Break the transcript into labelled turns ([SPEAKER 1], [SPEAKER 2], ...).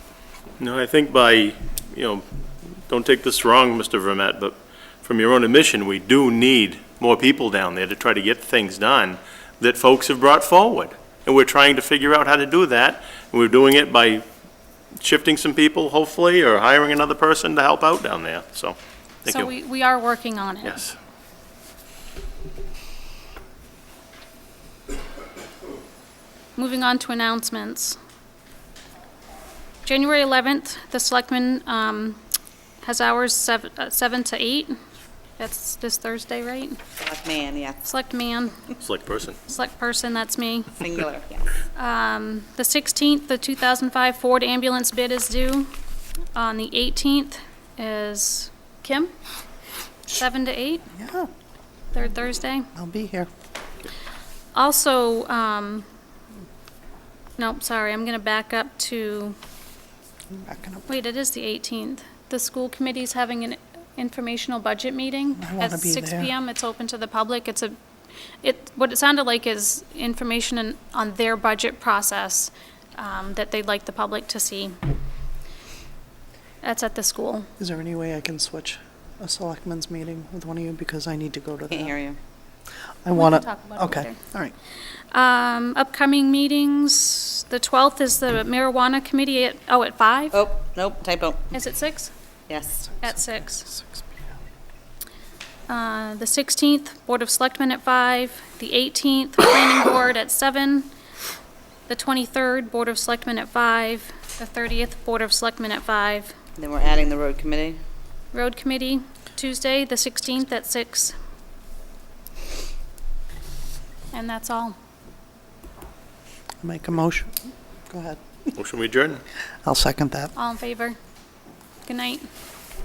[SPEAKER 1] No, I think by, you know, don't take this wrong, Mr. Vermet, but from your own admission, we do need more people down there to try to get things done that folks have brought forward. And we're trying to figure out how to do that, and we're doing it by shifting some people, hopefully, or hiring another person to help out down there, so, thank
[SPEAKER 2] So
[SPEAKER 1] you.
[SPEAKER 2] we, we are working on it.
[SPEAKER 1] Yes.
[SPEAKER 2] Moving on to announcements. January 11th, the selectmen um, has hours sev- uh, 7 to 8. That's this Thursday, right?
[SPEAKER 3] Black man, yeah,
[SPEAKER 2] Select man,
[SPEAKER 1] Select person.
[SPEAKER 2] select person, that's me.
[SPEAKER 3] singular, yeah.
[SPEAKER 2] The 16th, the 2005 Ford ambulance bid is due. On the 18th is Kim, 7 to 8,
[SPEAKER 4] Yeah,
[SPEAKER 2] third Thursday.
[SPEAKER 4] I'll be here.
[SPEAKER 2] Also, um, nope, sorry, I'm going to back up to
[SPEAKER 4] I'm backing up.
[SPEAKER 2] Wait, it is the 18th. The school committee's having an informational budget meeting
[SPEAKER 4] I
[SPEAKER 2] at
[SPEAKER 4] wanna be
[SPEAKER 2] 6
[SPEAKER 4] there.
[SPEAKER 2] PM. It's open to the public. It's a, it, what it sounded like is information in- on their budget process um, that they'd like the public to see. That's at the school.
[SPEAKER 4] Is there any way I can switch a selectmen's meeting with one of you because I need to go to
[SPEAKER 3] Can't hear
[SPEAKER 4] that?
[SPEAKER 3] you.
[SPEAKER 4] I want to.
[SPEAKER 2] talk about it
[SPEAKER 4] Okay,
[SPEAKER 2] later.
[SPEAKER 4] all right.
[SPEAKER 2] Um, Upcoming meetings, the 12th is the marijuana committee at, oh, at 5?
[SPEAKER 3] Oh, nope, typo,
[SPEAKER 2] Is it 6?
[SPEAKER 3] yes.
[SPEAKER 2] At 6.
[SPEAKER 4] Six p.m.
[SPEAKER 2] Uh, the 16th, Board of Selectmen at 5, the 18th, Planning Board at 7, the 23rd, Board of Selectmen at 5, the 30th, Board of Selectmen at 5,
[SPEAKER 3] Then we're adding the road committee.
[SPEAKER 2] Road Committee, Tuesday, the 16th at 6. And that's all.
[SPEAKER 4] Make a motion. Go ahead.
[SPEAKER 1] Motion we adjourn.
[SPEAKER 4] I'll second that.
[SPEAKER 2] All in favor? Good night.